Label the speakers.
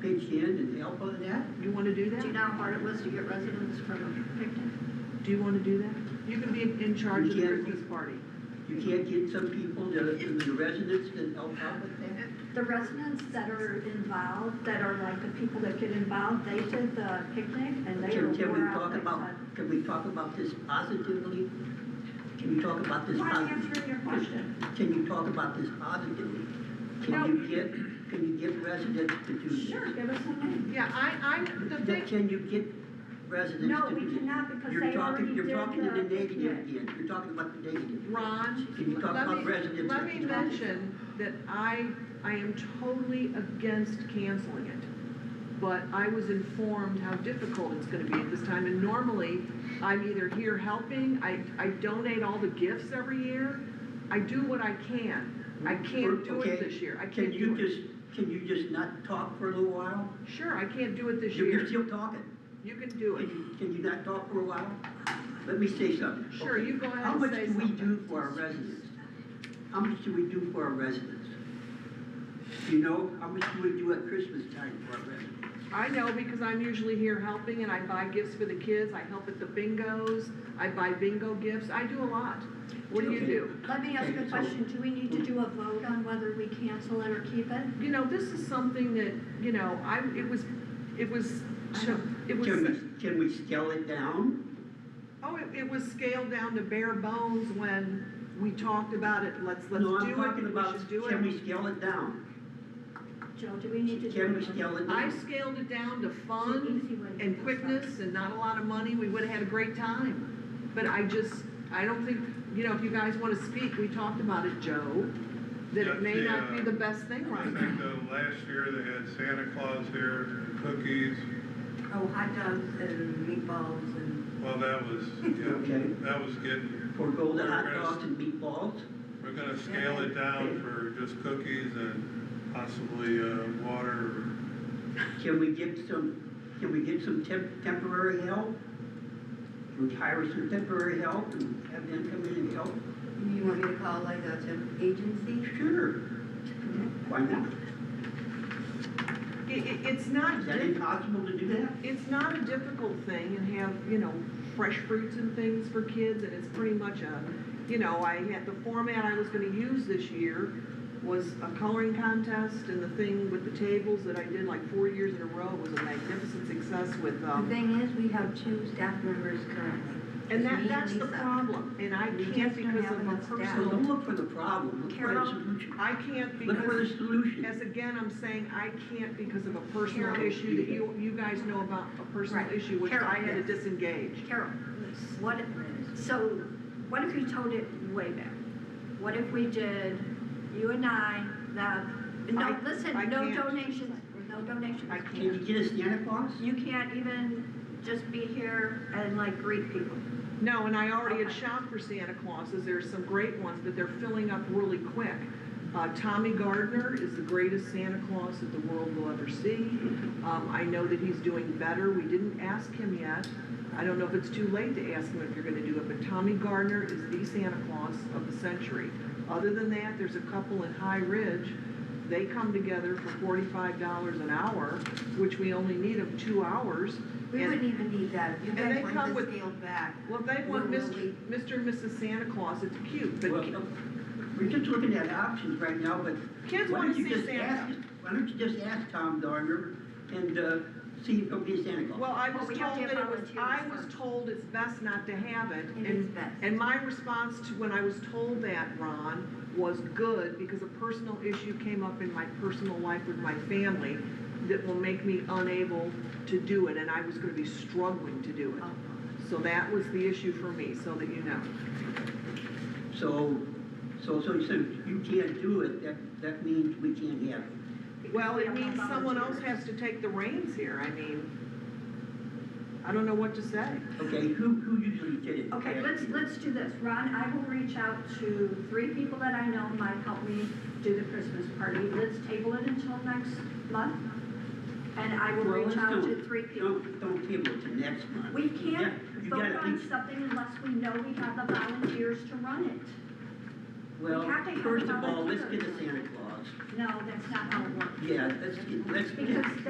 Speaker 1: Big Bend and help on that?
Speaker 2: You wanna do that?
Speaker 3: Do you know how hard it was to get residents from Picton?
Speaker 2: Do you wanna do that? You can be in charge of the
Speaker 1: Yeah.
Speaker 2: Christmas party.
Speaker 1: You can't get some people, to- the residents to help out with that?
Speaker 3: The residents that are involved, that are like the people that get involved, they did the picnic and they
Speaker 1: Can,
Speaker 3: were
Speaker 1: can we
Speaker 3: more out
Speaker 1: talk
Speaker 3: like
Speaker 1: about,
Speaker 3: that.
Speaker 1: can we talk about this positively? Can you talk about this
Speaker 3: Well, I'm
Speaker 1: positively?
Speaker 3: answering your question.
Speaker 1: Can you talk about this positively?
Speaker 3: No.
Speaker 1: Can you get, can you get residents to do this?
Speaker 3: Sure, give us a name.
Speaker 4: Yeah, I, I, the
Speaker 1: That-
Speaker 4: thing,
Speaker 1: Can you get residents
Speaker 3: No,
Speaker 1: to do
Speaker 3: we
Speaker 1: this?
Speaker 3: cannot because
Speaker 1: You're
Speaker 3: they
Speaker 1: talking-
Speaker 3: already did
Speaker 1: You're talking to the
Speaker 3: the-
Speaker 1: negative again, you're talking about the negative.
Speaker 4: Ron,
Speaker 1: Can you talk about
Speaker 4: let me,
Speaker 1: residents
Speaker 4: let
Speaker 1: that
Speaker 4: me
Speaker 1: you talk to?
Speaker 4: mention that I, I am totally against canceling it. But I was informed how difficult it's gonna be at this time, and normally, I'm either here helping, I, I donate all the gifts every year. I do what I can. I can't do it
Speaker 1: Okay,
Speaker 4: this year, I
Speaker 1: Can
Speaker 4: can't
Speaker 1: you
Speaker 4: do it.
Speaker 1: just, can you just not talk for a little while?
Speaker 4: Sure, I can't do it this
Speaker 1: You're you're
Speaker 4: year.
Speaker 1: still talking.
Speaker 4: You can do
Speaker 1: Can
Speaker 4: it.
Speaker 1: you, can you not talk for a while? Let me say something.
Speaker 4: Sure,
Speaker 1: okay?
Speaker 4: you go ahead
Speaker 1: How
Speaker 4: and
Speaker 1: much
Speaker 4: say
Speaker 1: do we
Speaker 4: something.
Speaker 1: do for our residents? How much do we do for our residents? You know, how much do we do at Christmas time for our residents?
Speaker 4: I know because I'm usually here helping and I buy gifts for the kids, I help at the bingos, I buy bingo gifts, I do a lot. What do you
Speaker 1: Okay.
Speaker 4: do?
Speaker 3: Let me ask
Speaker 1: Okay,
Speaker 3: a
Speaker 1: so-
Speaker 3: question. Do we need to do a vote on whether we cancel it or keep it?
Speaker 4: You know, this is something that, you know, I, it was, it was,
Speaker 3: I don't-
Speaker 4: it was,
Speaker 1: Can we, can we scale it down?
Speaker 4: oh, it, it was scaled down to bare bones when we talked about it, let's, let's
Speaker 1: No,
Speaker 4: do
Speaker 1: I'm
Speaker 4: it,
Speaker 1: talking
Speaker 4: we
Speaker 1: about
Speaker 4: should do
Speaker 1: Can
Speaker 4: it.
Speaker 1: we scale it down?
Speaker 3: Joe, do we need to do?
Speaker 1: Can we
Speaker 3: it?
Speaker 1: scale it
Speaker 4: I
Speaker 1: down?
Speaker 4: scaled it down to
Speaker 3: It's an easy
Speaker 4: fun
Speaker 3: way to do
Speaker 4: and
Speaker 3: it.
Speaker 4: quickness and not a lot of money, we would've had a great time. But I just, I don't think, you know, if you guys wanna speak, we talked about it, Joe, that it may not be the best thing
Speaker 5: I
Speaker 4: right
Speaker 5: think
Speaker 4: now.
Speaker 5: uh, last year they had Santa Claus here, and cookies,
Speaker 6: Oh, hot dogs and meatballs and,
Speaker 5: well, that was,
Speaker 1: Okay.
Speaker 5: yeah, that was getting,
Speaker 1: Forego the
Speaker 5: We're
Speaker 1: hot
Speaker 5: gonna
Speaker 1: dogs
Speaker 5: s-
Speaker 1: and meatballs?
Speaker 5: we're gonna scale it down for just cookies and possibly, uh, water.
Speaker 1: Can we get some, can we get some temp, temporary help? Can we hire some temporary help and have them come in and help?
Speaker 6: you want me to call like a temp agency?
Speaker 1: Sure. Why not?
Speaker 4: It, it, it's not,
Speaker 1: Is that
Speaker 4: diff-
Speaker 1: impossible to do that?
Speaker 4: it's not a difficult thing and have, you know, fresh fruits and things for kids and it's pretty much a, you know, I had, the format I was gonna use this year was a coloring contest and the thing with the tables that I did like four years in a row was a magnificent success with,
Speaker 6: The
Speaker 4: um,
Speaker 6: thing is, we have two staff members currently.
Speaker 4: And
Speaker 6: It's
Speaker 4: that,
Speaker 6: me
Speaker 4: that's the
Speaker 6: Lisa.
Speaker 4: problem, and I
Speaker 6: We
Speaker 4: can't
Speaker 6: just don't
Speaker 4: because
Speaker 6: have
Speaker 4: of a
Speaker 6: enough staff.
Speaker 1: So
Speaker 4: personal,
Speaker 1: don't look for the problem, look for the
Speaker 4: Carol,
Speaker 1: solution.
Speaker 4: I can't
Speaker 1: Look for the
Speaker 4: because, as
Speaker 1: solution.
Speaker 4: again, I'm saying, I can't because of a personal
Speaker 1: Carol.
Speaker 4: issue that you, you guys know about, a personal
Speaker 3: Right.
Speaker 4: issue, which
Speaker 3: Carol,
Speaker 4: I had to
Speaker 3: yes.
Speaker 4: disengage.
Speaker 3: Carol, what, if- so what if we told it way back? What if we did, you and I, the, no,
Speaker 4: I-
Speaker 3: listen,
Speaker 4: I
Speaker 3: no
Speaker 4: can't.
Speaker 3: donations, no donations.
Speaker 4: I
Speaker 1: Can you
Speaker 4: can't,
Speaker 1: get a Santa Claus?
Speaker 3: You can't even just be here and like greet people.
Speaker 4: no, and I already had
Speaker 3: Okay.
Speaker 4: shopped for Santa Clauses, there's some great ones, but they're filling up really quick. Uh, Tommy Gardner is the greatest Santa Claus that the world will ever see, um, I know that he's doing better, we didn't ask him yet. I don't know if it's too late to ask him if you're gonna do it, but Tommy Gardner is the Santa Claus of the century. Other than that, there's a couple in High Ridge, they come together for forty-five dollars an hour, which we only need of two hours.
Speaker 6: We
Speaker 4: And-
Speaker 6: wouldn't even need that, you
Speaker 4: And they
Speaker 6: guys
Speaker 4: come
Speaker 6: want
Speaker 4: with-
Speaker 6: this scaled back.
Speaker 4: Well, if they want
Speaker 6: We're
Speaker 4: Mr.
Speaker 6: really-
Speaker 4: Mr. and Mrs. Santa Claus, it's cute, but
Speaker 1: Well,
Speaker 4: ki-
Speaker 1: We're just looking at options right now, but
Speaker 4: kids
Speaker 1: why
Speaker 4: wanna
Speaker 1: don't you
Speaker 4: see
Speaker 1: just
Speaker 4: Santa.
Speaker 1: ask, why don't you just ask Tom Darner and, uh, see if he'll be a Santa Claus?
Speaker 4: Well, I
Speaker 3: Well,
Speaker 4: was
Speaker 3: we have to
Speaker 4: told that
Speaker 3: have
Speaker 4: it was, I
Speaker 3: volunteers
Speaker 4: was
Speaker 3: first.
Speaker 4: told it's best not to have it,
Speaker 6: It
Speaker 4: and
Speaker 6: is best.
Speaker 4: And my response to, when I was told that, Ron, was good, because a personal issue came up in my personal life with my family that will make me unable to do it, and I was gonna be struggling to do
Speaker 3: Uh-huh.
Speaker 4: it. So that was the issue for me, so that you know.
Speaker 1: So, so, so, so you can't do it, that, that means we can't have it.
Speaker 4: Well,
Speaker 3: We
Speaker 4: it
Speaker 3: have no
Speaker 4: means someone else
Speaker 3: volunteers.
Speaker 4: has to take the reins here, I mean, I don't know what to say.
Speaker 1: Okay, who, who usually did it?
Speaker 3: Okay, let's, let's do this. Ron, I will reach out to three people that I know might help me do the Christmas party. Let's table it until next month. And I will
Speaker 1: Well,
Speaker 3: reach
Speaker 1: let's
Speaker 3: out
Speaker 1: do
Speaker 3: to
Speaker 1: it.
Speaker 3: three people.
Speaker 1: Don't, don't table it to next month.
Speaker 3: We
Speaker 1: You
Speaker 3: can't
Speaker 1: got- you
Speaker 3: vote
Speaker 1: gotta
Speaker 3: on
Speaker 1: think-
Speaker 3: something unless we know we have the volunteers to run it.
Speaker 1: Well,
Speaker 3: have to have
Speaker 1: first of all, let's get a
Speaker 3: volunteers.
Speaker 1: Santa Claus.
Speaker 3: No, that's not how it works.
Speaker 1: Yeah, let's get, let's get.
Speaker 3: Because